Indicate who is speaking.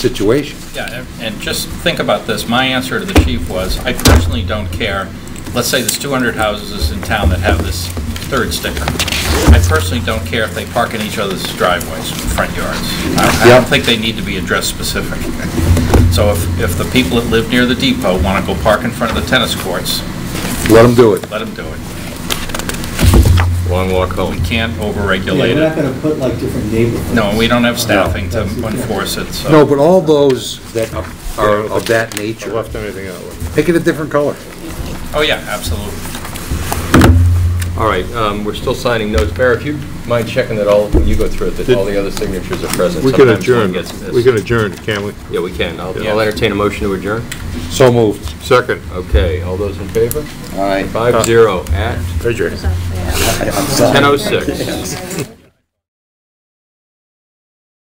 Speaker 1: situation.
Speaker 2: Yeah, and just think about this. My answer to the chief was, I personally don't care. Let's say there's 200 houses in town that have this third sticker. I personally don't care if they park in each other's driveways, front yards. I I don't
Speaker 1: Yep.
Speaker 2: think they need to be address specific. So if, if the people that live near the depot want to go park in front of the tennis courts,
Speaker 1: Let them do it.
Speaker 2: let them do it.
Speaker 3: Long walk
Speaker 2: We
Speaker 3: home.
Speaker 2: can't
Speaker 4: Yeah,
Speaker 2: overregulate
Speaker 4: we're not
Speaker 2: it.
Speaker 4: gonna put like different neighborhoods.
Speaker 2: No, we don't have staffing to
Speaker 4: That's- yeah.
Speaker 2: enforce it, so.
Speaker 1: No, but all those that are of that nature,
Speaker 3: left anything out.
Speaker 1: pick it a different color.
Speaker 2: Oh, yeah, absolutely.
Speaker 3: All right, um, we're still signing notes. Bear, if you mind checking that all, when you go through it, that all the other signatures are present.
Speaker 5: We can
Speaker 3: Sometimes one
Speaker 5: adjourn,
Speaker 3: gets missed.
Speaker 5: we can adjourn, can we?
Speaker 3: Yeah, we can. I'll
Speaker 2: Yeah.
Speaker 3: I'll entertain a motion to adjourn.
Speaker 1: So moved.
Speaker 5: Second.
Speaker 3: Okay, all those in favor?
Speaker 1: All right.
Speaker 3: Five zero at
Speaker 5: Adjourn.
Speaker 1: I'm sorry.
Speaker 3: 10:06.